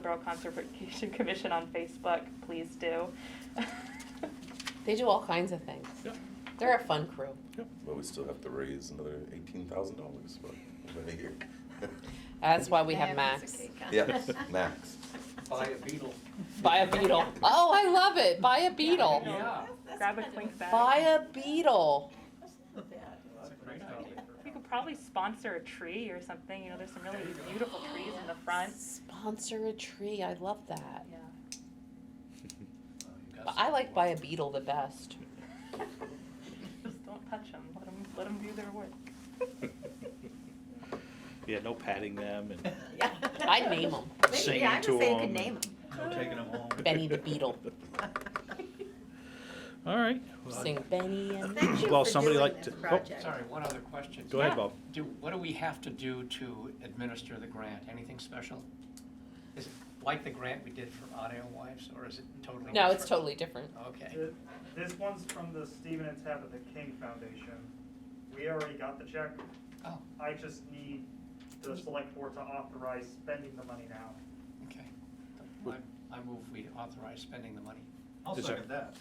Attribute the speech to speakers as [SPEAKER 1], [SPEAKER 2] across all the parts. [SPEAKER 1] Borough Conservation Commission on Facebook, please do.
[SPEAKER 2] They do all kinds of things.
[SPEAKER 3] Yep.
[SPEAKER 2] They're a fun crew.
[SPEAKER 3] But we still have to raise another eighteen thousand dollars for another year.
[SPEAKER 2] That's why we
[SPEAKER 4] They
[SPEAKER 2] have
[SPEAKER 4] a piece
[SPEAKER 2] Max.
[SPEAKER 4] of cake on
[SPEAKER 3] Yes,
[SPEAKER 4] it.
[SPEAKER 3] Max.
[SPEAKER 5] Buy a beetle.
[SPEAKER 2] Buy a beetle. Oh, I love it. Buy a beetle.
[SPEAKER 5] Yeah.
[SPEAKER 4] That's
[SPEAKER 1] Grab a
[SPEAKER 4] kind of
[SPEAKER 1] twink bag.
[SPEAKER 2] Buy a beetle.
[SPEAKER 4] not bad.
[SPEAKER 1] We could probably sponsor a tree or something, you know, there's some really beautiful trees in the front.
[SPEAKER 2] Sponsor a tree. I love that.
[SPEAKER 1] Yeah.
[SPEAKER 2] But I like buy a beetle the best.
[SPEAKER 1] Just don't touch them, let them, let them do their work.
[SPEAKER 6] Yeah, no patting them and
[SPEAKER 2] I'd name them
[SPEAKER 4] Maybe-
[SPEAKER 6] singing
[SPEAKER 4] yeah, I was
[SPEAKER 6] to
[SPEAKER 4] gonna say you could
[SPEAKER 6] them.
[SPEAKER 4] name
[SPEAKER 5] No taking them home.
[SPEAKER 2] Benny the Beetle.
[SPEAKER 6] All right.
[SPEAKER 2] Sing Benny and.
[SPEAKER 4] Thank you
[SPEAKER 6] Well,
[SPEAKER 4] for
[SPEAKER 6] somebody
[SPEAKER 4] doing
[SPEAKER 6] like
[SPEAKER 4] this
[SPEAKER 6] to- oh,
[SPEAKER 4] project.
[SPEAKER 5] Sorry, one other question.
[SPEAKER 6] Go ahead, Bob.
[SPEAKER 5] Do, what do we have to do to administer the grant? Anything special? Is it like the grant we did for Audio Wives, or is it totally?
[SPEAKER 2] No, it's
[SPEAKER 5] different?
[SPEAKER 2] totally different.
[SPEAKER 5] Okay.
[SPEAKER 7] Th- This one's from the Stephen and Tabitha King Foundation. We already got the check.
[SPEAKER 5] Oh,
[SPEAKER 7] I just need the select board to authorize spending the money now.
[SPEAKER 5] okay. I, I move we authorize spending the money.
[SPEAKER 6] I'll Is there- second
[SPEAKER 5] that.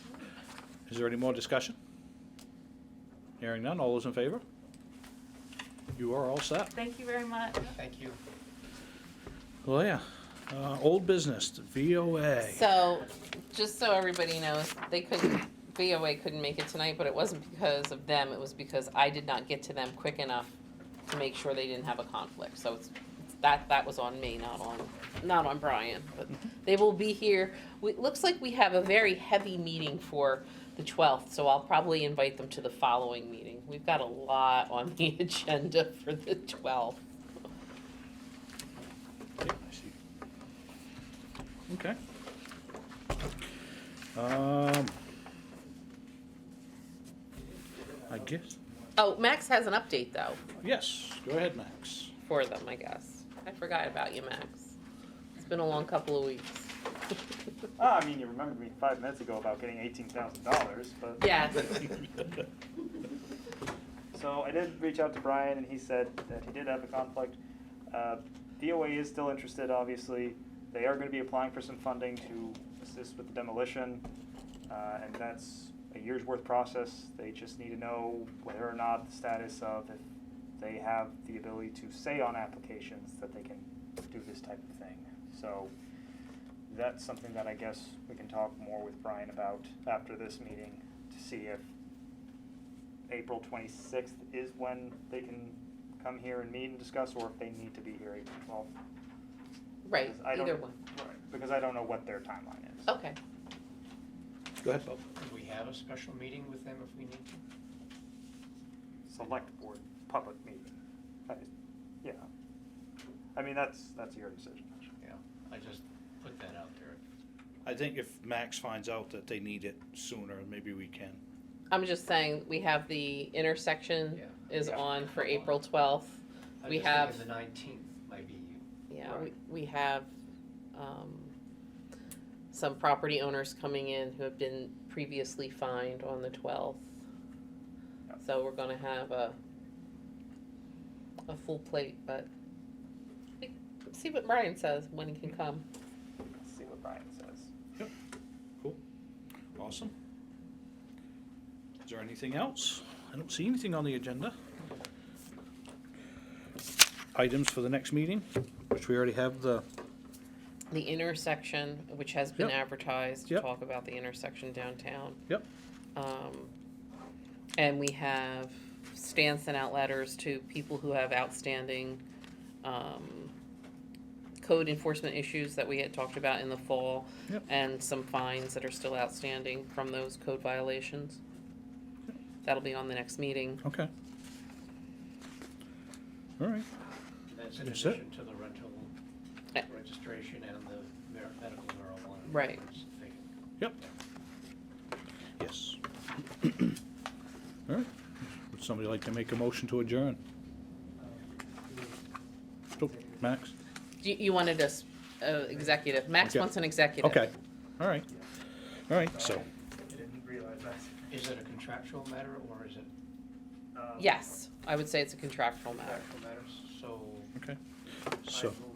[SPEAKER 6] Is there any more discussion? Hearing none, all those in favor? You are all set.
[SPEAKER 1] Thank you very much.
[SPEAKER 5] Thank you.
[SPEAKER 6] Well, Oh, yeah. Uh, old business, the VOA.
[SPEAKER 2] So, just so everybody knows, they couldn't, VOA couldn't make it tonight, but it wasn't because of them, it was because I did not get to them quick enough to make sure they didn't have a conflict, so it's, it's- that, that was on me, not on, not on Brian, but they will be here. We, it looks like we have a very heavy meeting for the twelfth, so I'll probably invite them to the following meeting. We've got a lot on the agenda for the twelfth.
[SPEAKER 6] Yeah, I see. Okay. Um, I guess,
[SPEAKER 2] Oh, Max has an update though,
[SPEAKER 6] yes, go ahead, Max.
[SPEAKER 2] for them, I guess. I forgot about you, Max. It's been a long couple of weeks.
[SPEAKER 7] Ah, I mean, you remembered me five minutes ago about getting eighteen thousand dollars, but.
[SPEAKER 2] Yes.
[SPEAKER 7] So I did reach out to Brian, and he said that he did have a conflict. Uh, DOA is still interested, obviously. They are going to be applying for some funding to assist with the demolition, uh, and that's a year's worth process. They just need to know whether or not the status of if they have the ability to say on applications that they can do this type of thing. So that's something that I guess we can talk more with Brian about after this meeting to see if April twenty-sixth is when they can come here and meet and discuss, or if they need to be here April twelfth.
[SPEAKER 2] Right,
[SPEAKER 7] I don't-
[SPEAKER 2] either one.
[SPEAKER 7] Right, because I don't know what their timeline is.
[SPEAKER 2] Okay.
[SPEAKER 6] Go ahead, Bob.
[SPEAKER 5] Could we have a special meeting with them if we need to?
[SPEAKER 7] Select board, public meeting. I- Yeah. I mean, that's, that's your decision.
[SPEAKER 5] Yeah, I just put that out there.
[SPEAKER 6] I think if Max finds out that they need it sooner, maybe we can.
[SPEAKER 2] I'm just saying, we have the intersection
[SPEAKER 5] Yeah.
[SPEAKER 2] is
[SPEAKER 7] Yeah.
[SPEAKER 2] on for April twelfth.
[SPEAKER 5] I
[SPEAKER 2] We
[SPEAKER 5] just think
[SPEAKER 2] have-
[SPEAKER 5] The nineteenth might be you.
[SPEAKER 2] Yeah, we,
[SPEAKER 7] Right.
[SPEAKER 2] we have, um, some property owners coming in who have been previously fined on the twelfth.
[SPEAKER 7] Yep.
[SPEAKER 2] So we're gonna have a, a full plate, but we- see what Brian says when he can come.
[SPEAKER 7] Let's see what Brian says.
[SPEAKER 6] Awesome. Is there anything else? I don't see anything on the agenda. Items for the next meeting, which we already have the,
[SPEAKER 2] The intersection, which has been
[SPEAKER 6] Yep.
[SPEAKER 2] advertised, to
[SPEAKER 6] Yep.
[SPEAKER 2] talk about the intersection downtown.
[SPEAKER 6] Yep.
[SPEAKER 2] Um, and we have Stan sent out letters to people who have outstanding, um, code enforcement issues that we had talked about in the fall.
[SPEAKER 6] Yep.
[SPEAKER 2] And some fines that are still outstanding from those code violations. That'll be on the next meeting.
[SPEAKER 6] okay. All right,
[SPEAKER 5] That's in
[SPEAKER 6] That's it.
[SPEAKER 5] addition to the rental
[SPEAKER 2] Yeah.
[SPEAKER 5] registration and the mar- medical marijuana.
[SPEAKER 2] Eh. Right.
[SPEAKER 5] thing.
[SPEAKER 6] yep. Yes. All right, would somebody like to make a motion to adjourn? Oh, Max?
[SPEAKER 2] You, you wanted us, uh, executive, Max
[SPEAKER 6] Okay.
[SPEAKER 2] wants an executive.
[SPEAKER 6] Okay, all right, all right, so,
[SPEAKER 7] I didn't realize that.
[SPEAKER 5] Is it a contractual matter or is it
[SPEAKER 7] Um,
[SPEAKER 2] Yes, I would say it's a contractual matter.
[SPEAKER 5] contractual matters? So
[SPEAKER 6] okay,
[SPEAKER 5] I
[SPEAKER 6] so.
[SPEAKER 5] move